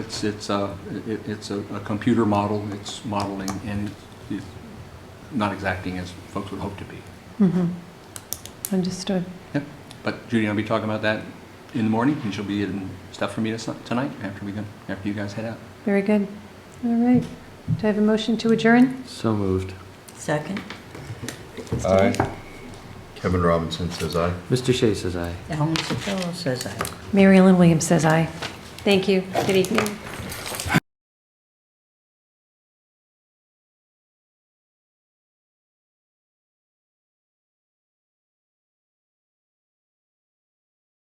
It's, it's a, it- it's a a computer model, it's modeling, and it's not exacting as folks would hope to be. Mhm. Mm-hmm. Understood. But Judy, I'll be talking about that in the morning, and she'll be in stuff for me to- tonight, after we, go- after you guys head out. Very good. All right. Do I have a motion to adjourn? So moved. Second? Aye. Kevin Robinson says aye. Mr. Shea says aye. Ellen Sotelo says aye. Mary Ellen Williams says aye. Thank you. Good evening.